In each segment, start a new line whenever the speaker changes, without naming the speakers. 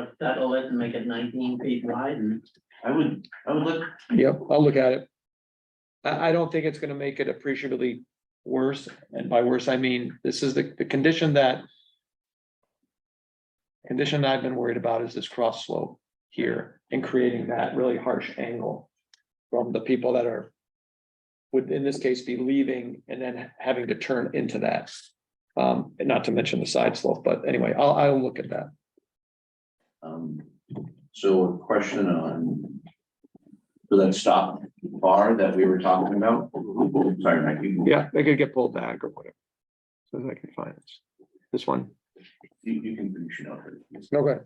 but that'll let them make it nineteen feet wide and
I would, I would look,
Yep, I'll look at it. I, I don't think it's gonna make it appreciably worse, and by worse, I mean, this is the, the condition that. Condition I've been worried about is this cross slope here and creating that really harsh angle. From the people that are. Would in this case be leaving and then having to turn into that. Um, and not to mention the side slope, but anyway, I'll, I'll look at that.
um, so a question on. For that stop bar that we were talking about, sorry, Mike, you,
Mm-hmm. Yeah, they could get pulled back or whatever. So that I can find this. This one,
you you can finish it up.
no good.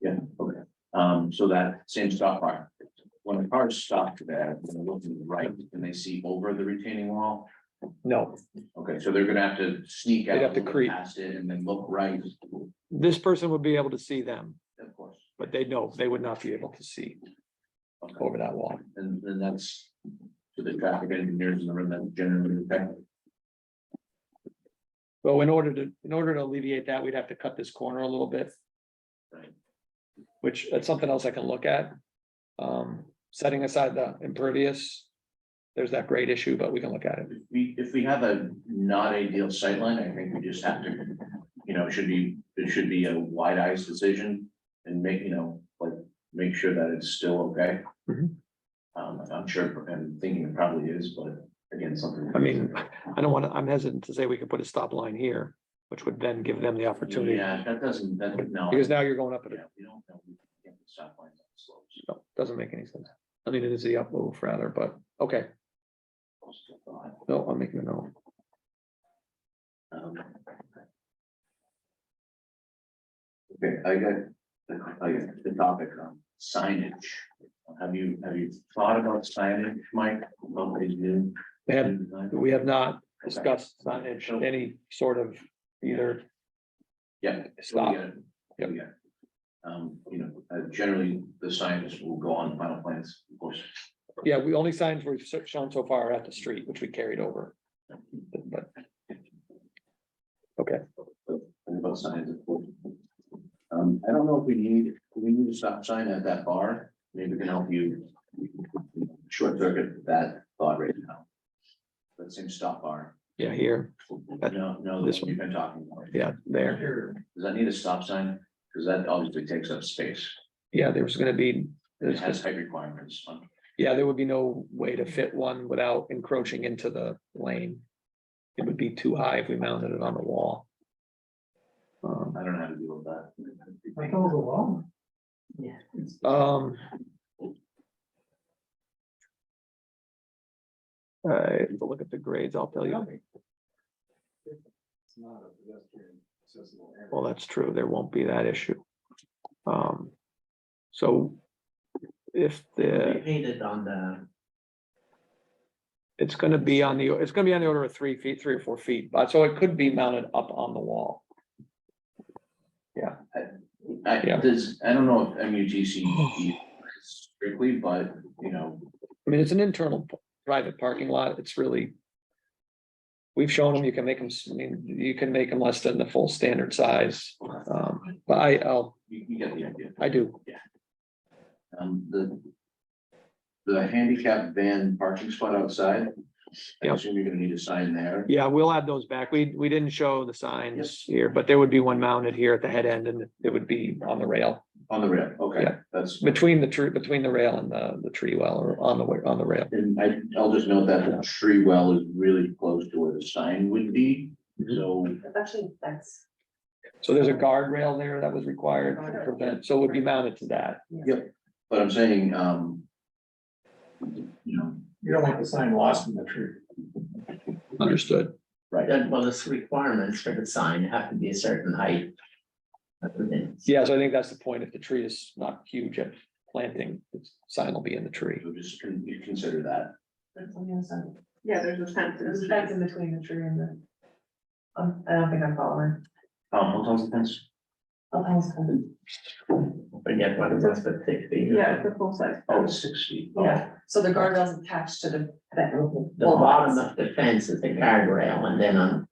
Yeah, okay, um, so that same stop bar, when the cars stop to that, when they look to the right, and they see over the retaining wall?
No,
Okay, so they're gonna have to sneak out.
They'd have to
look
creep.
Past it and then look right,
this person would be able to see them,
of course,
but they know they would not be able to see
okay,
over that wall.
and then that's. To the traffic engineers in the room that generally, affect-
So in order to, in order to alleviate that, we'd have to cut this corner a little bit.
Right.
Which, that's something else I can look at. Um, setting aside the impervious, there's that grade issue, but we can look at it.
if we, if we have a not ideal sightline, I think we just have to. You know, it should be, it should be a wide eyes decision and make, you know, like, make sure that it's still okay.
Mhm.
Um, I'm sure, I'm thinking it probably is, but again, something.
I mean, I don't want to, I'm hesitant to say we could put a stop line here, which would then give them the opportunity.
Yeah, that doesn't, that, no.
Because now you're going up at a
Yeah, we don't know. we can't put stop signs on slopes.
no, doesn't make any sense. I mean, it is the up move rather, but, okay, no, I'm making a note.
Um, Okay, I got, I got the topic on signage. Have you, have you thought about signage, Mike? About what you do?
They have,
Okay.
we have not discussed signage, any sort of either
Yeah.
stop.
Yeah. Yeah. Um, you know, uh, generally, the signs will go on final plans, of course.
Yeah, we only signs we've so- shown so far are at the street, which we carried over. But
And about signs, of course. Um, I don't know if we need, do we need to stop sign at that bar, maybe we can help you. Short circuit that thought right now. That same stop bar.
yeah, here, That-
No, no,
this
this one you've been talking about.
yeah, there.
Does that need a stop sign? Because that obviously takes up space.
Yeah, there was gonna be,
It
there's
has
just,
height requirements on.
yeah, there would be no way to fit one without encroaching into the lane. It would be too high if we mounted it on the wall. Um,
I don't know how to deal with that.
yeah. it's-
Um. I have to look at the grades, I'll tell you. Well, that's true, there won't be that issue. Um, so if
They
the,
painted on the,
it's gonna be on the, it's gonna be on the order of three feet, three or four feet, but so it could be mounted up on the wall.
I,
Yeah.
does, I don't know if MUTC strictly, but, you know,
I mean, it's an internal p- private parking lot, it's really. We've shown them, you can make them, I mean, you can make them less than the full standard size, um, but I, I'll,
you, you get the idea.
I do,
Um, the. The handicap van parking spot outside. I
Yep.
assume you're gonna need a sign there.
yeah, we'll add those back, we, we didn't show the signs here, but there would be one mounted here at the head end, and it would be on the rail.
On the rail, okay,
Yeah.
that's,
Between the tree, between the rail and the, the tree well, or on the, wa- on the rail,
and I, I'll just note that the tree well is really close to where the sign would be, so.
That's actually, that's.
so there's a guardrail there that was required to prevent, so it would be mounted to that.
But I'm saying, um. You know,
You don't want the sign lost in the tree.
Understood.
right,
that- well, the requirements for the sign have to be a certain height. That's the thing.
Yeah, so I think that's the point, if the tree is not huge at planting, the sign will be in the tree.
so just con- you consider that.
that's on the other side. Yeah, there's a fence. There's a fence in between the tree and the. Um, I don't think I'm following. Oh,
Um, what was the fence?
Forget what it was, but six feet.
Yeah, it's a full size.
Oh, it's six feet. Oh,
Yeah, so the guardrail's attached to the.
The bottom of the fence is the guardrail and then on